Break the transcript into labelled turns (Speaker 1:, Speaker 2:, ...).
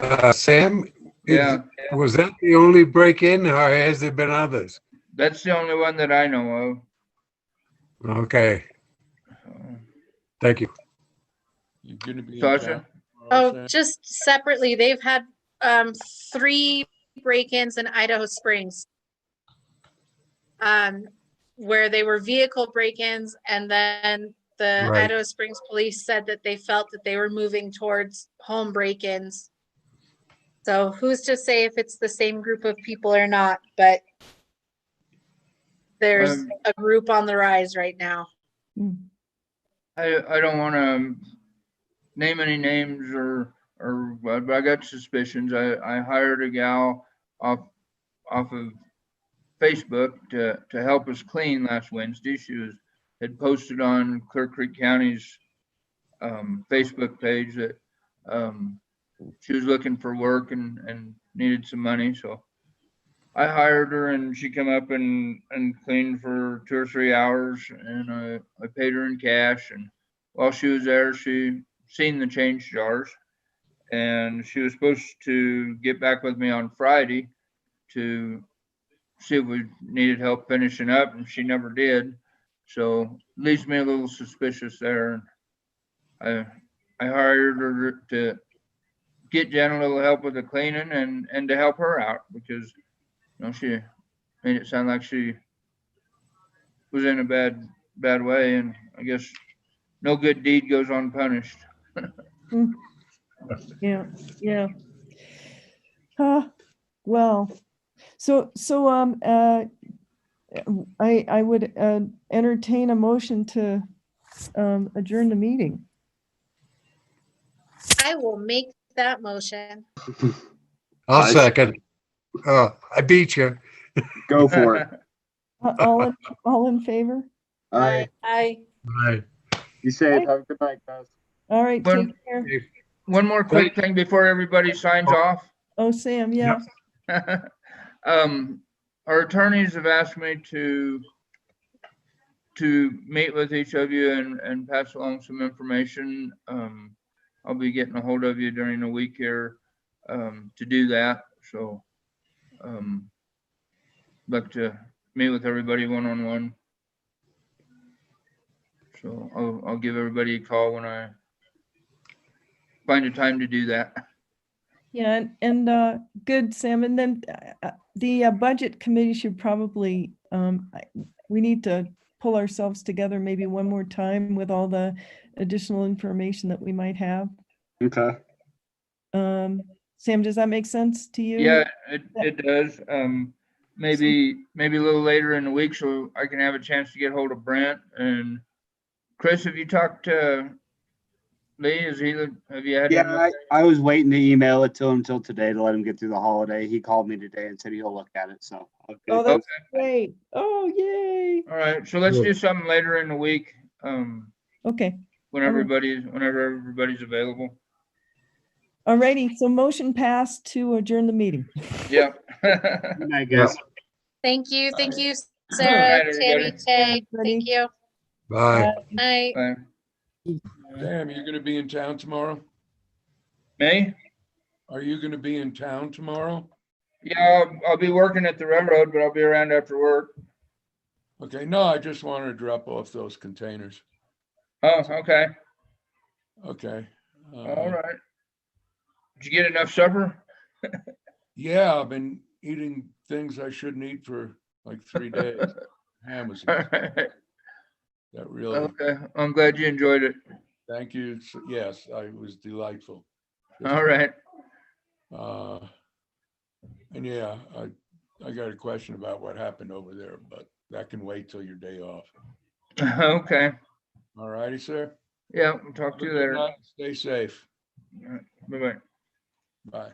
Speaker 1: Uh, Sam? is-
Speaker 2: Yeah,
Speaker 1: Was that the only break-in or has there been others?
Speaker 2: that's the only one that I know of.
Speaker 1: Okay, thank you.
Speaker 3: You're gonna be. in
Speaker 2: Sasha?
Speaker 3: town tomorrow,
Speaker 4: Oh,
Speaker 3: Sam?
Speaker 4: just separately, they've had um, three break-ins in Idaho Springs. Um, where they were vehicle break-ins and then the
Speaker 1: Right.
Speaker 4: Idaho Springs police said that they felt that they were moving towards home break-ins. So who's to say if it's the same group of people or not, but there's
Speaker 2: Um,
Speaker 4: a group on the rise right now.
Speaker 2: I, I don't want to name any names or, or, but but I got suspicions. I, I hired a gal off, off of Facebook to, to help us clean last Wednesday. She was, had posted on Clear Creek County's um, Facebook page that um, she was looking for work and, and needed some money, so I hired her and she come up and, and cleaned for two or three hours and I, I paid her in cash and while she was there, she seen the change jars. And she was supposed to get back with me on Friday to see if we needed help finishing up and she never did. So leaves me a little suspicious there. I, I hired her to get Jen a little help with the cleaning and, and to help her out because no, she made it sound like she was in a bad, bad way, and I guess no good deed goes unpunished.
Speaker 5: Yeah, yeah. Huh, well, so, so, um, uh, I, I would, uh, entertain a motion to, um, adjourn the meeting.
Speaker 4: I will make that motion.
Speaker 1: I'll
Speaker 6: I-
Speaker 1: second. Uh, I beat you.
Speaker 6: Go for it.
Speaker 5: Uh, All, in- all in favor?
Speaker 6: All right.
Speaker 4: Aye.
Speaker 1: Aye.
Speaker 6: Be safe. Have a good night, guys.
Speaker 5: All right,
Speaker 2: Well-
Speaker 5: take care.
Speaker 2: One more quick thing before everybody signs off.
Speaker 5: Oh, Sam, yeah,
Speaker 2: Um, our attorneys have asked me to to meet with each of you and, and pass along some information. Um, I'll be getting a hold of you during the week here, um, to do that, so. Um, like to meet with everybody one-on-one. So I'll, I'll give everybody a call when I find a time to do that.
Speaker 5: yeah, and, and, uh, good, Sam, and then, uh, uh, the uh, budget committee should probably, um, I- we need to pull ourselves together maybe one more time with all the additional information that we might have.
Speaker 6: Okay.
Speaker 5: Um, Sam, does that make sense to you?
Speaker 2: Yeah, it, it does. Um, maybe, maybe a little later in the week, so I can have a chance to get hold of Brent and Chris, have you talked to Lee? Is he, have you had? him
Speaker 6: Yeah,
Speaker 2: up?
Speaker 6: I, I was waiting to email it to him till today to let him get through the holiday. He called me today and said he'll look at it, so. I'll get
Speaker 5: Oh,
Speaker 6: it.
Speaker 5: that's great. Oh, yay.
Speaker 2: All right, so let's
Speaker 1: Good.
Speaker 2: do something later in the week, um,
Speaker 5: Okay,
Speaker 6: Mm-hmm.
Speaker 2: when
Speaker 5: Okay.
Speaker 2: everybody's, whenever everybody's available.
Speaker 5: alrighty. So motion passed to adjourn the meeting.
Speaker 2: Yeah. Uh,
Speaker 6: Good night, guys.
Speaker 4: Thank you, thank you,
Speaker 2: Alright,
Speaker 4: Sarah,
Speaker 2: everybody.
Speaker 4: Tammy, Tay,
Speaker 5: Everybody.
Speaker 4: thank you.
Speaker 1: Bye.
Speaker 4: Bye.
Speaker 2: Bye.
Speaker 3: Sam, you're gonna be in town tomorrow?
Speaker 2: May?
Speaker 3: Are you gonna be in town tomorrow?
Speaker 2: Yeah, I'll- I'll be working at the railroad, but I'll be around after work.
Speaker 3: Okay, no, I just wanted to drop off those containers.
Speaker 2: Oh, okay,
Speaker 3: Okay. uh,
Speaker 2: all right. Did you get enough supper?
Speaker 3: Yeah, I've been eating things I shouldn't eat for like three days. Ham was
Speaker 2: All
Speaker 3: that
Speaker 2: right. Uh-huh.
Speaker 3: really,
Speaker 2: Okay, I'm glad you enjoyed it.
Speaker 3: thank you. s- Yes, I it was delightful. Yes,
Speaker 2: All right.
Speaker 3: Uh, and yeah, I, I got a question about what happened over there, but that can wait till your day off.
Speaker 2: Okay.
Speaker 3: All righty, sir.
Speaker 2: Yeah, we'll talk to you
Speaker 3: Good
Speaker 2: later.
Speaker 3: night. Stay safe.
Speaker 2: Bye bye.
Speaker 3: Bye.